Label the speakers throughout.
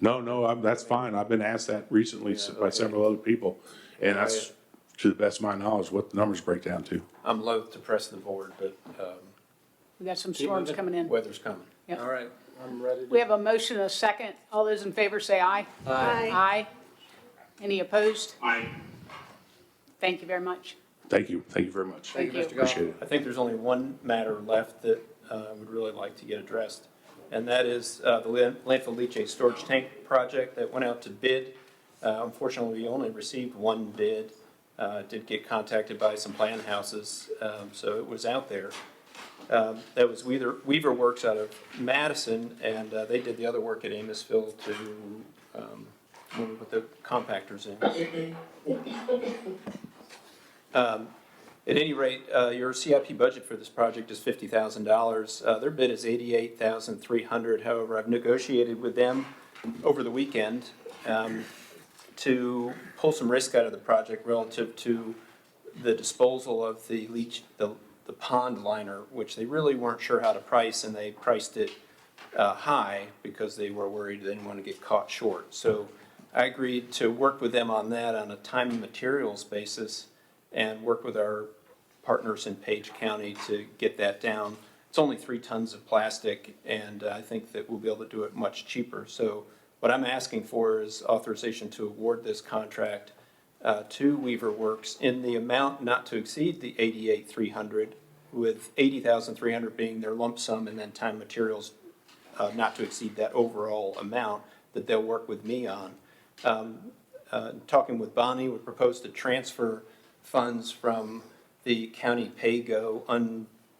Speaker 1: No, no, I'm, that's fine. I've been asked that recently s- by several other people. And that's, to the best of my knowledge, what the numbers break down to.
Speaker 2: I'm loath to press the board, but, um.
Speaker 3: We got some
Speaker 2: keep
Speaker 3: storms
Speaker 2: moving.
Speaker 3: coming in.
Speaker 2: Weather's coming.
Speaker 3: Yep.
Speaker 2: All right.
Speaker 4: I'm ready
Speaker 3: We
Speaker 4: to,
Speaker 3: have a motion, and a second. All those in favor say aye.
Speaker 5: Aye.
Speaker 3: Aye. Any opposed? Aye. Thank you very much.
Speaker 1: Thank you. Thank you very much.
Speaker 3: Thank you.
Speaker 2: Mr. Goff.
Speaker 1: Appreciate it.
Speaker 2: I think there's only one matter left that uh, I would really like to get addressed, and that is uh, the land- landfill leachate storage tank project that went out to bid. Uh, Unfortunately, we only received one bid. Uh, Did get contacted by some plan houses, um, so it was out there. Um, That was Weaver Weaver Works out of Madison, and uh, they did the other work at Amosville to, um, when we put the compactors in. At any rate, uh, your CIP budget for this project is fifty thousand dollars. Uh, Their bid is eighty-eight thousand three hundred. However, I've negotiated with them over the weekend um, to pull some risk out of the project relative to the disposal of the leach, the the pond liner, which they really weren't sure how to price, and they priced it uh, high because they were worried they didn't want to get caught short. So I agreed to work with them on that on a time and materials basis and work with our partners in Page County to get that down. It's only three tons of plastic, and I think that we'll be able to do it much cheaper. So what I'm asking for is authorization to award this contract uh, to Weaver Works in the amount not to exceed the eighty-eight three hundred, with eighty thousand three hundred being their lump sum and then time materials uh, not to exceed that overall amount that they'll work with me on. Um, uh, Talking with Bonnie, we proposed to transfer funds from the county pay-go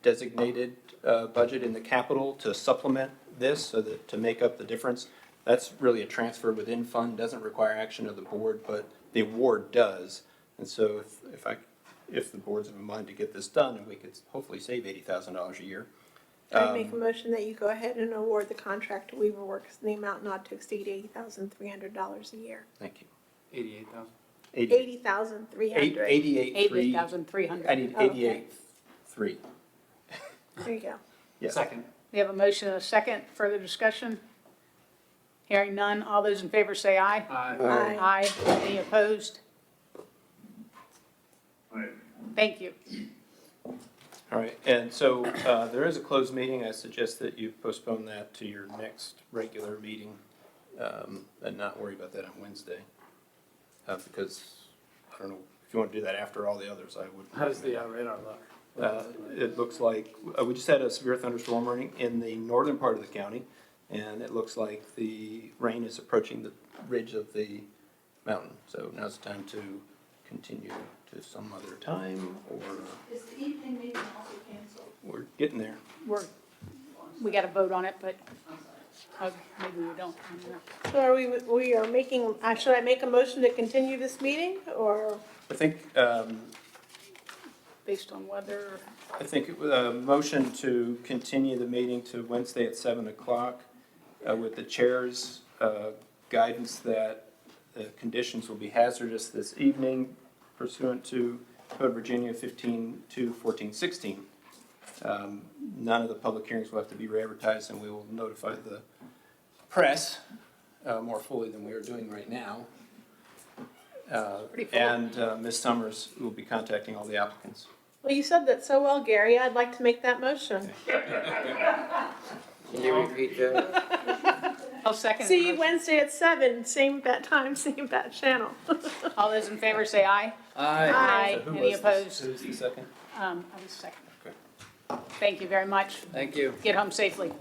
Speaker 2: undesignated uh, budget in the capital to supplement this, so that, to make up the difference. That's really a transfer within fund, doesn't require action of the board, but the award does. And so if- if I, if the board's of a mind to get this done, and we could hopefully save eighty thousand dollars a year, Um,
Speaker 5: I make a motion that you go ahead and award the contract to Weaver Works in the amount not to exceed eighty thousand three hundred dollars a year.
Speaker 2: thank you.
Speaker 4: eighty-eight thousand.
Speaker 2: Eighty-
Speaker 5: Eighty thousand three
Speaker 2: Eight-
Speaker 5: hundred. Oh,
Speaker 2: Eighty-eight, three. I
Speaker 3: 88,300.
Speaker 2: need
Speaker 5: Okay.
Speaker 2: eighty-eight, three.
Speaker 5: There you go.
Speaker 2: Yes.
Speaker 4: Second.
Speaker 3: We have a motion, and a second. Further discussion? Hearing none. All those in favor say aye.
Speaker 4: Aye.
Speaker 2: Uh,
Speaker 5: Aye.
Speaker 3: Aye. Any opposed? Thank you.
Speaker 2: All right, and so uh, there is a closed meeting. I suggest that you postpone that to your next regular meeting um, and not worry about that on Wednesday. Uh, Because, I don't know, if you want to do that after all the others, I would.
Speaker 4: How does the uh, radar look?
Speaker 2: Uh, It looks like, uh, we just had a severe thunderstorm running in the northern part of the county, and it looks like the rain is approaching the ridge of the mountain. So now's the time to continue to some other time, or
Speaker 6: Is the evening meeting also canceled?
Speaker 2: we're getting there.
Speaker 3: We're, we got to vote on it, but uh, maybe we don't. I don't know.
Speaker 5: So are we, we are making, uh, should I make a motion to continue this meeting or
Speaker 2: I think, um,
Speaker 3: Based on weather,
Speaker 2: I think it was a motion to continue the meeting to Wednesday at seven o'clock uh, with the chair's uh, guidance that the conditions will be hazardous this evening pursuant to Code of Virginia fifteen to fourteen sixteen. Um, None of the public hearings will have to be re-advertised and we will notify the press uh, more fully than we are doing right now. Uh,
Speaker 3: Pretty full.
Speaker 2: And uh, Ms. Summers will be contacting all the applicants.
Speaker 5: Well, you said that so well, Gary. I'd like to make that motion.
Speaker 7: Can you repeat that?
Speaker 3: I'll second. the
Speaker 5: See you
Speaker 3: motion.
Speaker 5: Wednesday at seven, same bat time, same bat channel.
Speaker 3: All those in favor say aye.
Speaker 2: Aye.
Speaker 3: Aye.
Speaker 2: So who
Speaker 3: Any
Speaker 2: was the-
Speaker 3: opposed?
Speaker 2: Who was the second?
Speaker 3: Um, I was second. Thank you very much.
Speaker 7: Thank you.
Speaker 3: Get home safely.